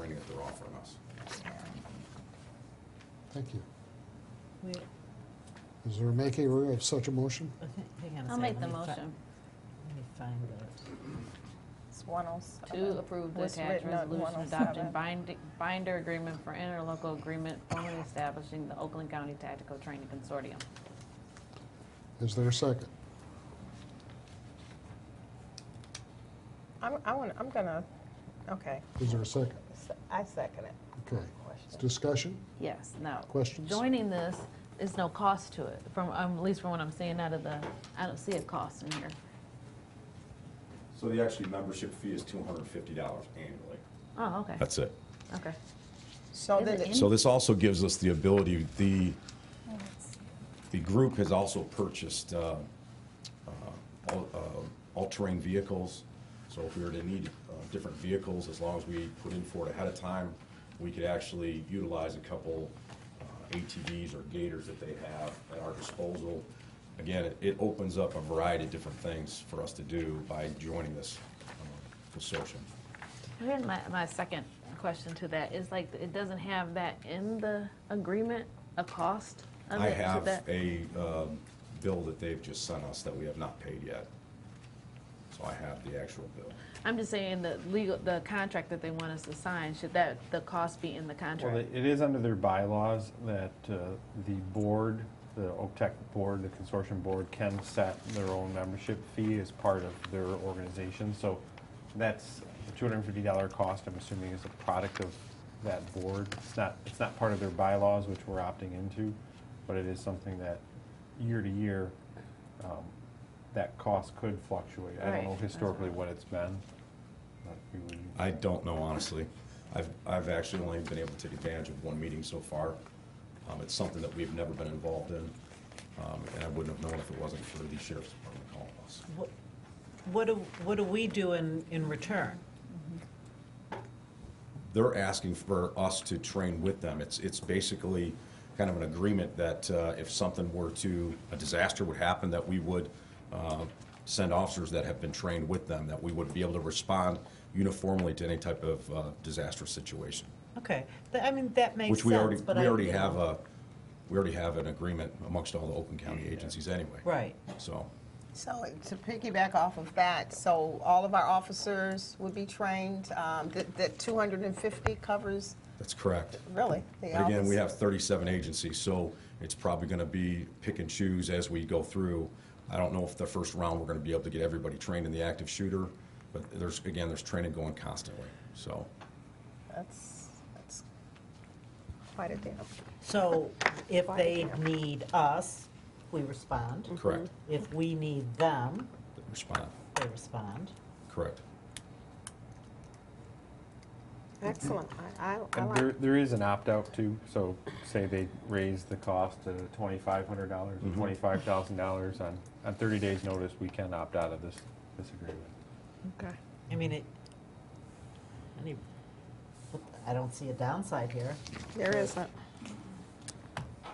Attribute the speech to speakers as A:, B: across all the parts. A: are offering us.
B: Thank you.
C: Wait,
B: Is there a maker of such a motion?
C: okay, hang on a
D: I'll
C: second,
D: make
C: let
D: the
C: me fi-
D: motion.
C: Let me find it.
E: It's 107.
D: To approve the
E: Was
D: attached
E: written oh at
D: resolution
E: 107.
D: adopting bind- binder agreement for interlocal agreement formally establishing the Oakland County Tactical Training Consortium.
B: Is there a second?
E: I'm, I want, I'm gonna, okay,
B: Is there a second?
E: S- I second it.
B: Okay.
E: Question.
B: Discussion?
D: Yes, no.
B: Questions?
D: Joining this is no cost to it, from, um, at least from what I'm seeing out of the, I don't see a cost in here.
A: So the actual membership fee is two hundred and fifty dollars annually.
D: Oh, okay,
F: That's it.
D: okay.
E: So
D: Is
E: then,
D: it
E: it-
D: in-
F: So this also gives us the ability, the, the group has also purchased uh, uh, all- uh, all-terrain vehicles. So if we were to need uh, different vehicles, as long as we put in for it ahead of time, we could actually utilize a couple uh, ATVs or gators that they have at our disposal. Again, it- it opens up a variety of different things for us to do by joining this um, consortium.
D: Here's my, my second question to that, is like, it doesn't have that in the agreement, a cost of
F: I
D: it to
F: have
D: that?
F: a um, bill that they've just sent us that we have not paid yet. So I have the actual bill.
D: I'm just saying the legal, the contract that they want us to sign, should that, the cost be in the
G: Well,
D: contract?
G: it it is under their bylaws that uh, the board, the OPTEC board, the consortium board can set their own membership fee as part of their organization. So that's the two hundred and fifty dollar cost, I'm assuming, is a product of that board. It's not, it's not part of their bylaws, which we're opting into, but it is something that year to year, um, that cost could fluctuate. I
D: Right,
G: don't know
D: that's
G: historically
D: right.
G: what it's been. but we would-
F: I don't know honestly. I've, I've actually only been able to take advantage of one meeting so far. Um, It's something that we've never been involved in, um, and I wouldn't have known if it wasn't for the sheriff's department calling us.
C: What- What do, what do we do in, in return?
F: they're asking for us to train with them. It's, it's basically kind of an agreement that uh, if something were to, a disaster would happen, that we would uh, send officers that have been trained with them, that we would be able to respond uniformly to any type of uh, disaster situation.
C: Okay, th- I mean, that makes
F: Which we already,
C: sense, but I.
F: we already
C: you know,
F: have a, we already have an agreement amongst all the Oakland County agencies anyway.
C: Right,
F: So,
E: so to piggyback off of that, so all of our officers would be trained, um, that, that 250 covers,
F: that's correct.
E: really, the
F: But again, we
E: office-
F: have 37 agencies, so it's probably going to be pick and choose as we go through. I don't know if the first round, we're going to be able to get everybody trained in the active shooter, but there's, again, there's training going constantly, so.
E: That's, that's quite a deal.
C: so if they need us, we respond.
F: Correct.
C: If we need them,
F: Respond,
C: they respond.
F: correct.
E: Excellent, I, I- I
G: And
E: like.
G: there, there is an opt-out too, so say they raise the cost to twenty-five hundred dollars or twenty-five thousand dollars on, on thirty days' notice, we can opt out of this, this agreement.
E: Okay.
C: I mean, it, any- I don't see a downside here.
E: There isn't,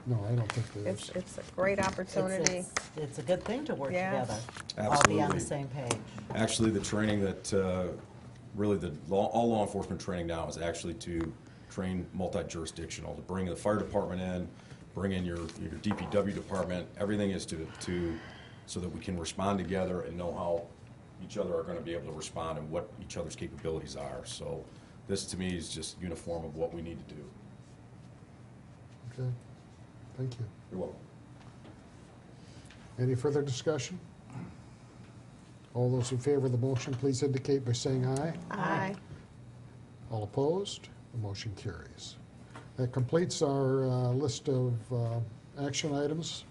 B: No, I don't think there
E: it's,
B: is.
E: it's a great
C: It's-
E: opportunity.
C: it's- It's a good thing to work
E: Yes.
C: together. All be on
F: Absolutely.
C: the same page.
F: Actually, the training that, uh, really, the, law- all law enforcement training now is actually to train multi-jurisdictional, to bring the fire department in, bring in your, your DPW department, everything is to, to, so that we can respond together and know how each other are gonna be able to respond and what each other's capabilities are. So this, to me, is just uniform of what we need to do.
B: Okay. Thank you.
F: You're welcome.
B: Any further discussion? All those in favor of the motion, please indicate by saying aye.
E: Aye.
B: All opposed? The motion carries. That completes our uh, list of uh, action items.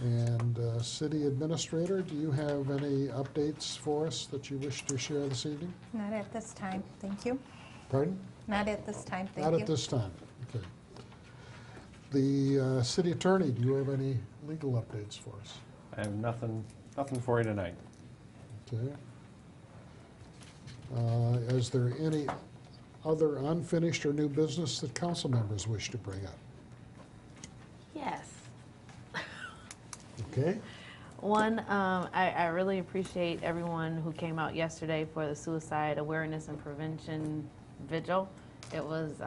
B: And uh, City Administrator, do you have any updates for us that you wish to share this evening?
H: Not at this time, thank you.
B: Pardon?
H: Not at this time, thank you.
B: Not at this time. Okay. The uh, City Attorney, do you have any legal updates for us?
G: I have nothing, nothing for you tonight.
B: Okay. Uh, Is there any other unfinished or new business that council members wish to bring up?
D: Yes.
B: Okay?
D: One, um, I, I really appreciate everyone who came out yesterday for the suicide awareness and prevention vigil. It was